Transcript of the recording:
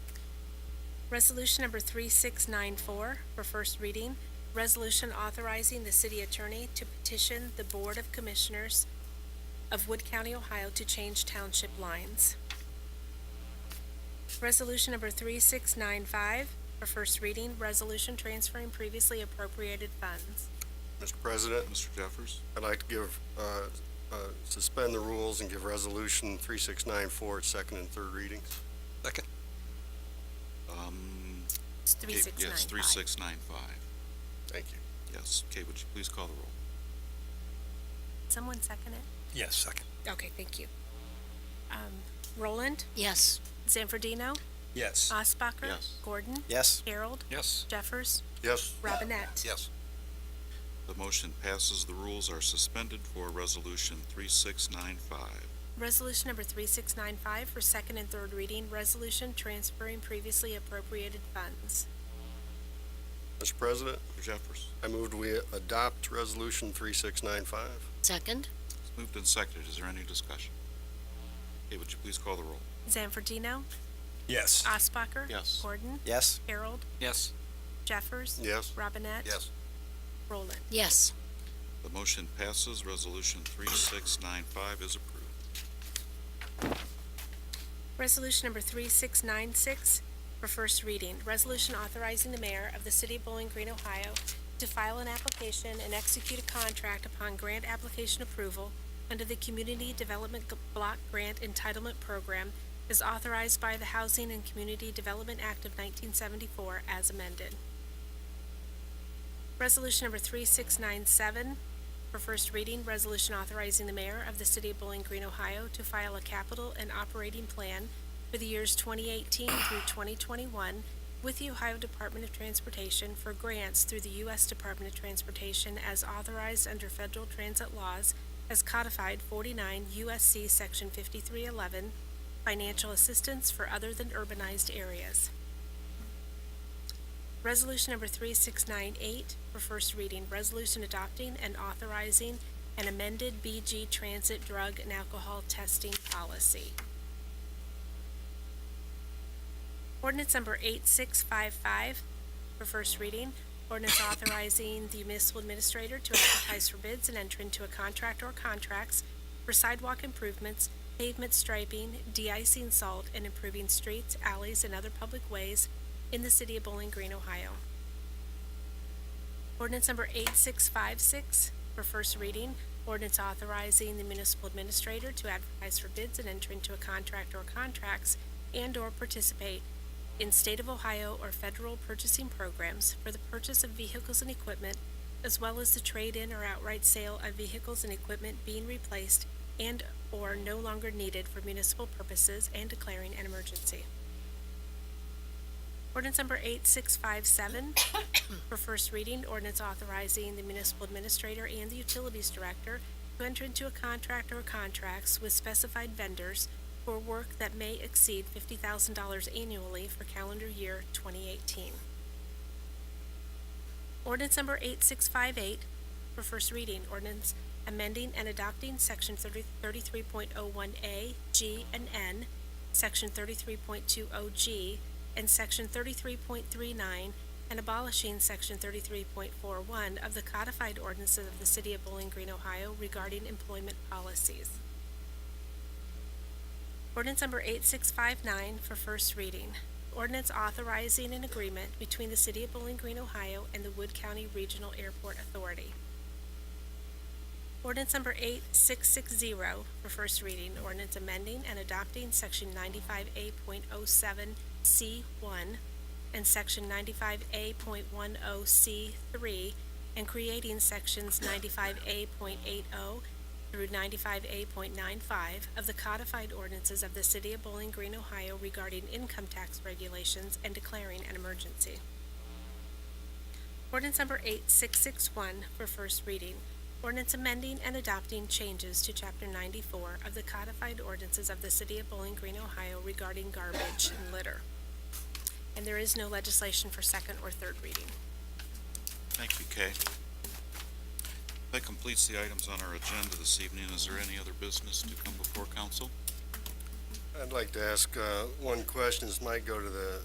Resolution number 3694 for first reading, resolution authorizing the city attorney to petition the Board of Commissioners of Wood County, Ohio to change township lines. Resolution number 3695 for first reading, resolution transferring previously appropriated funds. Mr. President, Mr. Jeffers? I'd like to give, uh, uh, suspend the rules and give Resolution 3694 its second and third readings. Um, It's okay, Yes, 3695. 3695, Thank you. yes. Kate, would you please call the roll? Someone second it? Yes, second. Okay, thank you. Um, Roland, Yes. Zanfordino, Yes. Osbacher. Yes. Gordon, Yes. Harold, Yes. Jeffers, Yes, Robinette. Yes. The motion passes, the rules are suspended for Resolution 3695. Resolution number 3695 for second and third reading, resolution transferring previously appropriated funds. Mr. President, Mr. Jeffers? I moved we adopt Resolution 3695. Second? It's moved and seconded, is there any discussion? Kate, would you please call the roll? Zanfordino, Yes. Osbacher. Yes. Gordon, Yes. Harold, Yes. Jeffers. Yes, Robinette. Yes. Roland. Yes. The motion passes, Resolution 3695 is approved. Resolution number 3696 for first reading, resolution authorizing the mayor of the city of Bowling Green, Ohio to file an application and execute a contract upon grant application approval under the Community Development G- Block Grant Entitlement Program as authorized by the Housing and Community Development Act of 1974 as amended. Resolution number 3697 for first reading, resolution authorizing the mayor of the city of Bowling Green, Ohio to file a capital and operating plan for the years 2018 through 2021 with the Ohio Department of Transportation for grants through the U.S. Department of Transportation as authorized under federal transit laws as codified 49 U.S.C. Section 5311, financial assistance for other than urbanized areas. Resolution number 3698 for first reading, resolution adopting and authorizing an amended BG Transit Drug and Alcohol Testing Policy. Ordinance number 8655 for first reading, ordinance authorizing the municipal administrator to advertise for bids and enter into a contract or contracts for sidewalk improvements, pavement striping, de-icing salt, and improving streets, alleys, and other public ways in the city of Bowling Green, Ohio. Ordinance number 8656 for first reading, ordinance authorizing the municipal administrator to advertise for bids and enter into a contract or contracts and/or participate in state of Ohio or federal purchasing programs for the purchase of vehicles and equipment, as well as the trade-in or outright sale of vehicles and equipment being replaced and/or no longer needed for municipal purposes and declaring an emergency. Ordinance number 8657 for first reading, ordinance authorizing the municipal administrator and the utilities director to enter into a contract or contracts with specified vendors for work that may exceed $50,000 annually for calendar year 2018. Ordinance number 8658 for first reading, ordinance amending and adopting Section 30 33.01A, G, and N, Section 33.20G, and Section 33.39, and abolishing Section 33.41 of the codified ordinances of the City of Bowling Green, Ohio regarding employment policies. Ordinance number 8659 for first reading. Ordinance authorizing an agreement between the City of Bowling Green, Ohio and the Wood County Regional Airport Authority. Ordinance number 8660 for first reading. Ordinance amending and adopting Section 95A.07C1 and Section 95A.10C3 and creating Sections 95A.80 through 95A.95 of the codified ordinances of the City of Bowling Green, Ohio regarding income tax regulations and declaring an emergency. Ordinance number 8661 for first reading. Ordinance amending and adopting changes to Chapter 94 of the codified ordinances of the City of Bowling Green, Ohio regarding garbage and litter. And there is no legislation for second or third reading. Thank you, Kay. That completes the items on our agenda this evening. Is there any other business to come before council? I'd like to ask uh, one question. This might go to the